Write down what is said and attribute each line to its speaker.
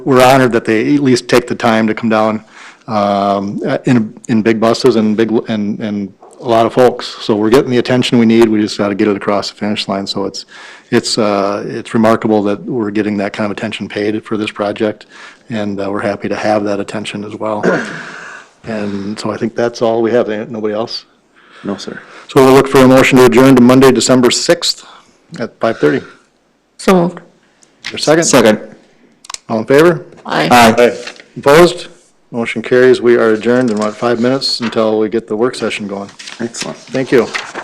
Speaker 1: we're honored that they at least take the time to come down um, uh, in, in big buses and big, and, and a lot of folks. So we're getting the attention we need, we just got to get it across the finish line. So it's, it's, uh, it's remarkable that we're getting that kind of attention paid for this project, and uh, we're happy to have that attention as well. And so I think that's all we have, Eh, nobody else?
Speaker 2: No, sir.
Speaker 1: So we'll look for a motion to adjourn to Monday, December 6th at 5:30.
Speaker 3: So moved.
Speaker 1: Your second?
Speaker 2: Second.
Speaker 1: All in favor?
Speaker 3: Aye.
Speaker 2: Aye.
Speaker 1: Opposed? Motion carries. We are adjourned in, what, five minutes until we get the work session going.
Speaker 2: Excellent.
Speaker 1: Thank you.